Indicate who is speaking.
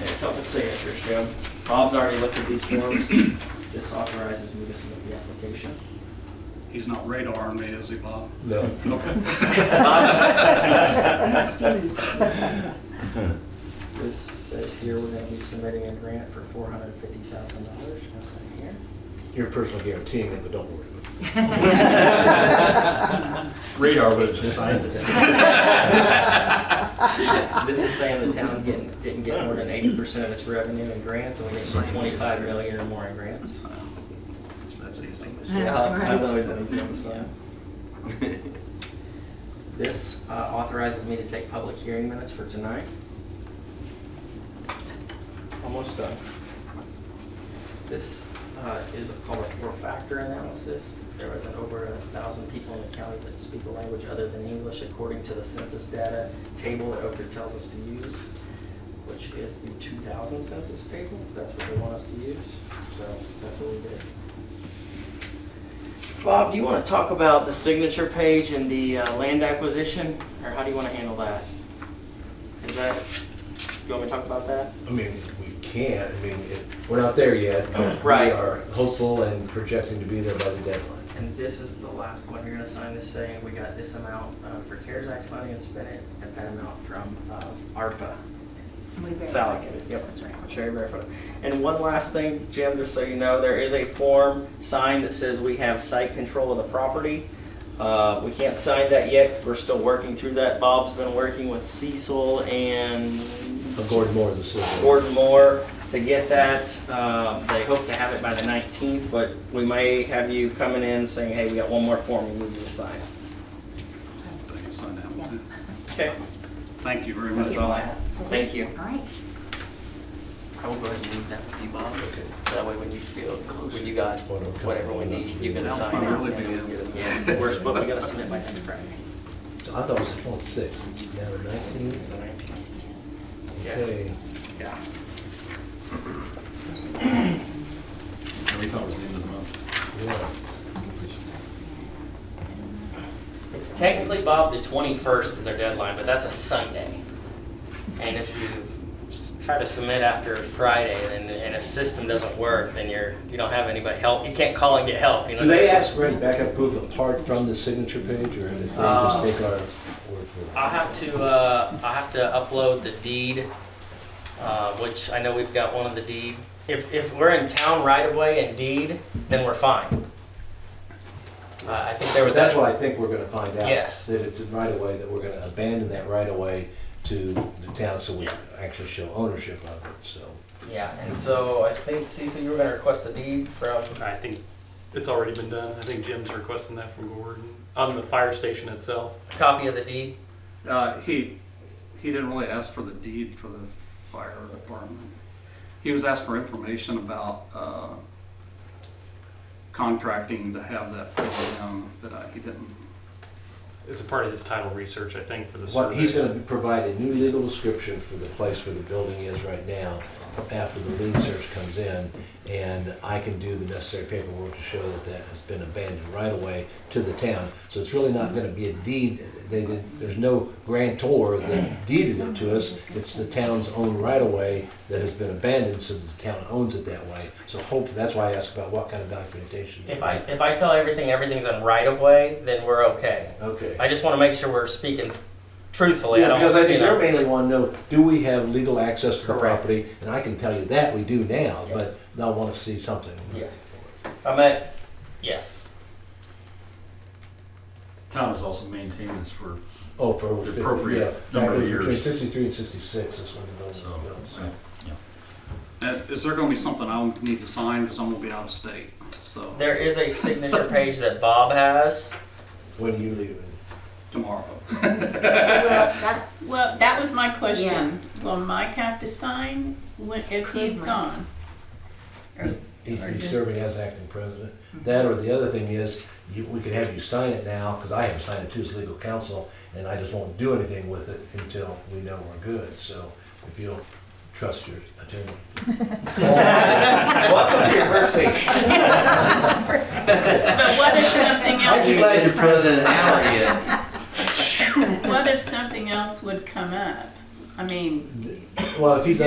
Speaker 1: and a couple signatures, Jim. Bob's already looked at these forms. This authorizes me to submit the application.
Speaker 2: He's not radaring me, is he, Bob?
Speaker 3: No.
Speaker 1: This says here we're gonna be submitting a grant for four hundred and fifty thousand dollars. Can I sign here?
Speaker 3: You're personally guaranteeing it, but don't worry about it.
Speaker 4: Radar would have just signed
Speaker 1: And This is saying the town didn't, didn't get more than eighty percent of its revenue in grants, and we get some twenty-five million or more in grants.
Speaker 2: That's easy.
Speaker 1: Yeah,
Speaker 5: right.
Speaker 1: that's always an example, so. This uh, authorizes me to take public hearing minutes for tonight. Almost done. This uh, is called a four-factor analysis. There was an over a thousand people in the county that speak a language other than English according to the census data table that Oaker tells us to use, which is the 2000 census table. That's what they want us to use, so that's what we did. Bob, do you want to talk about the signature page and the uh, land acquisition, or how do you want to handle that? Is that, you want me to talk about that?
Speaker 3: I mean, we can, I mean, it- we're not there yet. but
Speaker 1: Right.
Speaker 3: We are hopeful and projecting to be there by the deadline.
Speaker 1: And this is the last one, you're gonna sign this saying, we got this amount uh, for CARES Act money and spent it, and that amount from uh, ARPA. It's allocated, yep.
Speaker 5: That's right.
Speaker 1: Sherry Barefoot. And one last thing, Jim, just so you know, there is a form signed that says we have site control of the property. Uh, We can't sign that yet, because we're still working through that. Bob's been working with Cecil and
Speaker 3: Gordon Moore, the city.
Speaker 1: Gordon Moore to get that. Uh, They hope to have it by the 19th, but we may have you coming in saying, hey, we got one more form we need you to sign.
Speaker 2: I can sign that one,
Speaker 5: Yeah.
Speaker 2: too.
Speaker 1: Okay,
Speaker 2: Thank you very
Speaker 1: that's
Speaker 2: much.
Speaker 1: all I have. Thank you.
Speaker 5: All right.
Speaker 1: I will go ahead and leave that with you, Bob. So that way when you feel, when you got
Speaker 3: What I'm comfortable
Speaker 1: whatever we need, you can
Speaker 2: enough to
Speaker 1: sign
Speaker 2: do.
Speaker 1: it.
Speaker 2: Now it really
Speaker 1: and then we
Speaker 2: begins.
Speaker 1: get it. We're supposed, we gotta submit by next Friday.
Speaker 3: I thought it was twelve six, now the
Speaker 1: It's
Speaker 3: nineteenth.
Speaker 1: the 19th. Yeah.
Speaker 3: Okay.
Speaker 1: Yeah.
Speaker 4: We thought it was the end of the month.
Speaker 3: Yeah.
Speaker 1: It's technically, Bob, the 21st is their deadline, but that's a Sunday. And if you try to submit after Friday, then, and if system doesn't work, then you're, you don't have anybody help, you can't call and get help, you know?
Speaker 3: Do they ask for any backup proof apart from the signature page, or do they just
Speaker 1: Uh,
Speaker 3: take our word for it?
Speaker 1: I'll have to, uh, I'll have to upload the deed, uh, which I know we've got one of the deed. If, if we're in town right of way and deed, then we're fine. Uh, I think there was that.
Speaker 3: That's what I think we're gonna find out.
Speaker 1: Yes.
Speaker 3: That it's a right of way, that we're gonna abandon that right of way to the town, so we actually show ownership of it, so.
Speaker 1: Yeah, and so I think, Cecil, you were gonna request the deed from
Speaker 6: I think it's already been done. I think Jim's requesting that from Gordon on the fire station itself.
Speaker 1: copy of the deed.
Speaker 2: Uh, he, he didn't really ask for the deed for the fire department. He was asked for information about, uh, contracting to have that filled down, but I, he didn't.
Speaker 6: It's a part of his title research, I think, for the
Speaker 3: What,
Speaker 6: survey.
Speaker 3: he's gonna provide a new legal description for the place where the building is right now, after the lien search comes in, and I can do the necessary paperwork to show that that has been abandoned right away to the town. So it's really not gonna be a deed, they did, there's no grantor that deeded it to us, it's the town's own right away that has been abandoned, so the town owns it that way. So hopefully, that's why I asked about what kind of documentation.
Speaker 1: If I, if I tell everything, everything's in right of way, then we're okay.
Speaker 3: Okay.
Speaker 1: I just wanna make sure we're speaking truthfully.
Speaker 3: Yeah,
Speaker 1: don't
Speaker 3: because I think
Speaker 1: you know.
Speaker 3: they're mainly want to know, do we have legal access to the
Speaker 1: Correct.
Speaker 3: property? And I can tell you that we do now,
Speaker 1: Yes.
Speaker 3: but they'll want to see something.
Speaker 1: Yes. I meant, yes.
Speaker 4: Town has also maintained this for,
Speaker 3: Oh, for.
Speaker 4: The appropriate number of
Speaker 3: Between
Speaker 4: years.
Speaker 3: sixty-three and sixty-six is when the building
Speaker 4: so,
Speaker 3: goes.
Speaker 4: yeah.
Speaker 2: Uh, is there gonna be something I'll need to sign, because I'm gonna be out of state, so,
Speaker 1: There is a signature page that Bob has.
Speaker 3: When you leave.
Speaker 2: tomorrow.
Speaker 7: Well, that was my question.
Speaker 5: Yeah.
Speaker 7: Will Mike have to sign when, if
Speaker 5: Could
Speaker 7: he's
Speaker 5: Mike?
Speaker 7: gone?
Speaker 3: He's
Speaker 7: Or
Speaker 3: be
Speaker 7: just-
Speaker 3: serving as acting president. That or the other thing is, you, we could have you sign it now, because I haven't signed it too as legal counsel, and I just won't do anything with it until we know we're good, so if you'll trust your attorney. Welcome to your first week.
Speaker 7: But what if something else,
Speaker 8: I'm glad you're president now again.
Speaker 7: what if something else would come up? I mean,
Speaker 3: Well, if he's